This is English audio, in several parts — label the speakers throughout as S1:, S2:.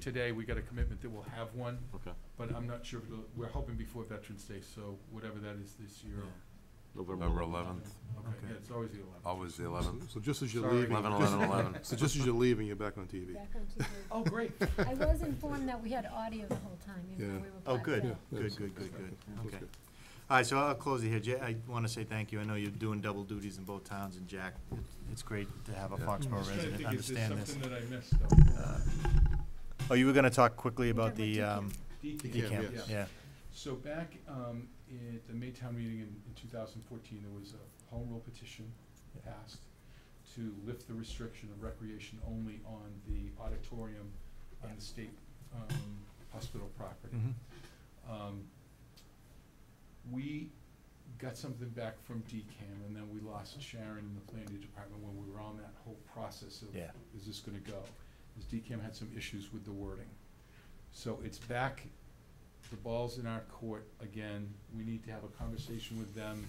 S1: today, we got a commitment that we'll have one,
S2: Okay,
S1: but I'm not sure, if it'll- we're hoping before Veterans Day, so whatever that is this year.
S3: November eleventh,
S1: Okay, yeah, it's always the eleventh.
S3: always the eleventh.
S4: So just as you're
S1: Sorry.
S4: leaving.
S3: 11,
S4: just-
S3: 11, 11.
S4: So just as you're leaving, you're back on TV.
S5: Back on TV.
S1: Oh, great.
S5: I was informed that we had audio the whole time, even
S4: Yeah.
S5: though we were.
S4: Oh,
S5: blacked
S4: Yeah,
S5: out.
S4: that's-
S6: Good, good, good,
S4: that's-
S6: good.
S4: that's
S6: Okay. All right, so I'll close it here. Ja- I want to say thank you. I know you're doing double duties in both towns, and Jack, it- it's great to have a
S3: Yeah.
S6: Foxborough resident understand
S1: Something
S6: this.
S1: that I missed, though.
S6: Uh, Oh, you were going to talk quickly
S5: We're
S6: about
S5: talking
S6: the
S5: about
S6: um,
S1: DECAM,
S6: decamp,
S1: yes.
S6: yeah.
S1: So back um, at the Maytown meeting in, in 2014, there was a home rule petition
S6: Yeah.
S1: passed to lift the restriction of recreation only on the auditorium on the state um, hospital property.
S6: Mhm.
S1: Um, we got something back from DCAM, and then we lost Sharon in the planning department when we were on that whole process of
S6: Mm-hmm. Yeah.
S1: is this gonna go? Is DCAM had some issues with the wording. So it's back, the ball's in our court again, we need to have a conversation with them.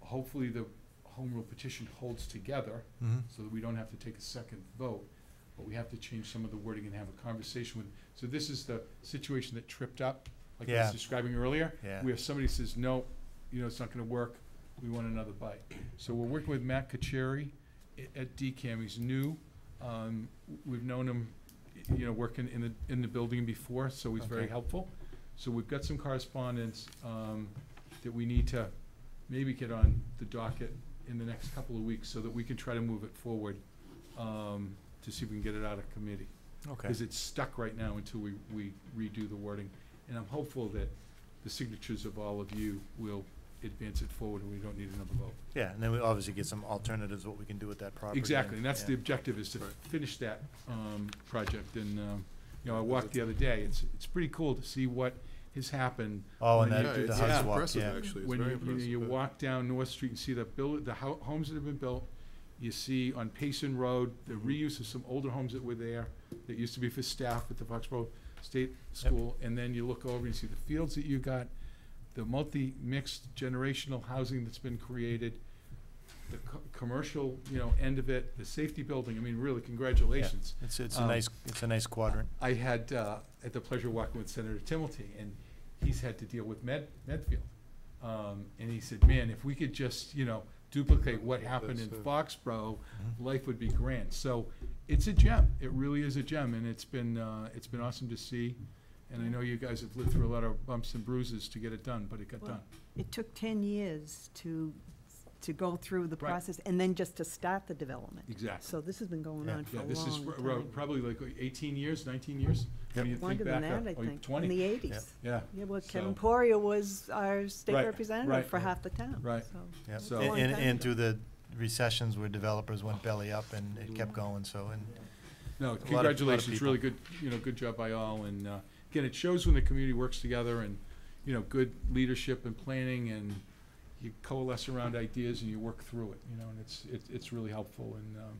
S1: Hopefully, the home rule petition holds together,
S6: Mhm.
S1: so that we don't have to take a second vote, but we have to change some of the wording and have a conversation with, so this is the situation that tripped up, like I
S6: Yeah.
S1: was describing earlier.
S6: Yeah.
S1: Where somebody says, no, you know, it's not gonna work, we want another bite. So we're working with Matt Kacheri i- at DCAM, he's new, um, w- we've known him, y- you know, working in the, in the building before, so he's very
S6: Okay.
S1: helpful. So we've got some correspondence, um, that we need to maybe get on the docket in the next couple of weeks so that we can try to move it forward, um, to see if we can get it out of committee.
S6: Okay.
S1: Because it's stuck right now until we, we redo the wording. And I'm hopeful that the signatures of all of you will advance it forward and we don't need another vote.
S6: Yeah, and then we obviously get some alternatives, what we can do with that property.
S1: Exactly, and that's the
S6: yeah.
S1: objective, is to finish that, um, project, and, um, you know, I walked the other day, it's, it's pretty cool to see what has happened.
S6: Oh, and
S1: when
S6: that,
S1: you do
S6: the
S1: that. Yeah.
S6: Hudson Walk, yeah.
S4: actually. It's
S1: When
S4: very
S1: you, you know,
S4: impressive.
S1: you walk down North Street and see the buil- the hou- homes that have been built, you see on Payson Road, the
S4: Mm-hmm.
S1: reuse of some older homes that were there, that used to be for staff at the Foxborough State School, and then you look over and you see the fields that you got, the multi-mixed generational housing that's been created, the co- commercial, you know, end of it, the safety building, I mean, really, congratulations.
S6: It's, it's a
S1: Um,
S6: nice, it's a nice quadrant.
S1: I had, uh, had the pleasure of walking with Senator Timmelty, and he's had to deal with Med, Medfield. Um, and he said, man, if we could just, you know, duplicate what happened in
S4: That's it.
S1: Foxborough,
S6: Mm-hmm.
S1: life would be grand. So it's a gem, it really is a gem, and it's been, uh, it's been awesome to see. And I know you guys have lived through a lot of bumps and bruises to get it done, but it got
S7: Well,
S1: done.
S7: It took 10 years to, to go through the
S1: Right.
S7: process and then just to start the development.
S1: Exactly.
S7: So this has been going
S6: Yeah.
S7: on for
S1: Yeah,
S7: a
S1: this is
S7: long
S1: r- r-
S7: time.
S1: probably like eighteen years, nineteen years? when you think
S7: Longer than
S1: back up.
S7: that, I
S1: Oh, you-
S7: think. In
S1: Twenty,
S7: the 80s.
S1: yeah.
S7: Yeah, well,
S1: So-
S7: Kevin Poria was our state
S1: Right, right.
S7: representative for half the town.
S1: Right.
S7: so
S6: Yeah,
S7: it's a long
S6: and,
S7: time
S6: and
S7: ago.
S6: through the recessions where developers went belly up and it kept going, so, and,
S1: No,
S6: lot of- lot of
S1: congratulations,
S6: people.
S1: really good, you know, good job by all, and, uh, again, it shows when the community works together and, you know, good leadership and planning, and you coalesce around ideas and you work through it, you know, and it's, it's, it's really helpful, and, um,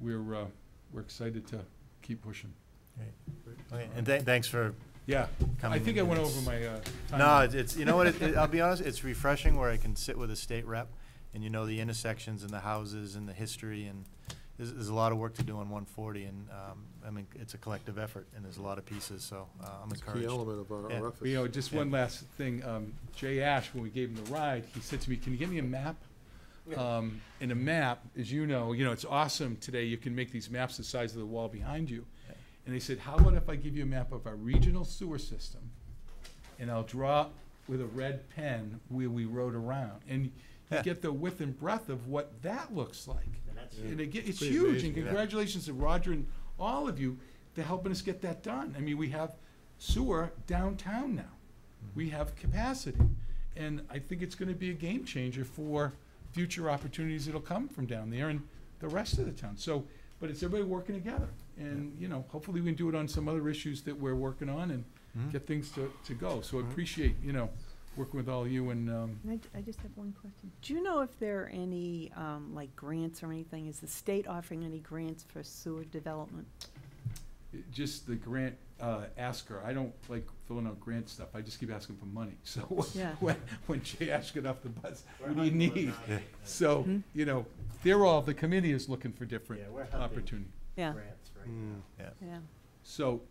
S1: we're, uh, we're excited to keep pushing.
S6: okay, and tha- thanks for
S1: Yeah, I
S6: coming.
S1: think I
S6: in.
S1: went
S6: It's-
S1: over my, uh, time.
S6: No, it's- it's, you know what, it- it- I'll be honest, it's refreshing where I can sit with a state rep and you know the intersections and the houses and the history and there's, there's a lot of work to do on one forty and, um, I mean, it's a collective effort and there's a lot of pieces, so, uh, I'm
S4: It's a key
S6: encouraged.
S4: element of our,
S6: Yeah.
S4: our
S1: You know,
S4: efforts.
S1: just
S6: Yeah.
S1: one last thing, um, Jay Ash, when we gave him the ride, he said to me, can you get me a map? Um, and a map, as you know, you know, it's awesome today, you can make these maps the size of the wall behind you. And he said, how about if I give you a map of our regional sewer system? And I'll draw with a red pen where we rode around, and you get the width and breadth of what that looks like. And again, it's
S4: Pretty
S1: huge,
S4: amazing,
S1: and
S4: yeah.
S1: congratulations to Roger and all of you for helping us get that done. I mean, we have sewer downtown now.
S4: Mm-hmm.
S1: We have capacity. And I think it's gonna be a game changer for future opportunities that'll come from down there and the rest of the town. So, but it's everybody working together. And, you know, hopefully we can do it on some other issues that we're working on and
S4: Mm-hmm.
S6: Mhm.
S1: get things to, to go. So I appreciate, you know, working with all of you and, um,
S7: And I j- I just have one question. Do you know if there are any, um, like, grants or anything? Is the state offering any grants for sewer development?
S1: it- just the grant uh, asker. I don't like filling out grant stuff. I just keep asking for money. So
S7: Yeah.
S1: when, when Jay Ash got off the bus, what do you need?
S6: Yeah.
S1: So,
S7: Hmm?
S1: you know, they're all, the committee is looking for different
S6: Yeah, we're hunting.
S4: Hmm.
S1: opportunity.
S7: Yeah,
S6: Grants,
S4: Mm.
S7: yeah.
S1: So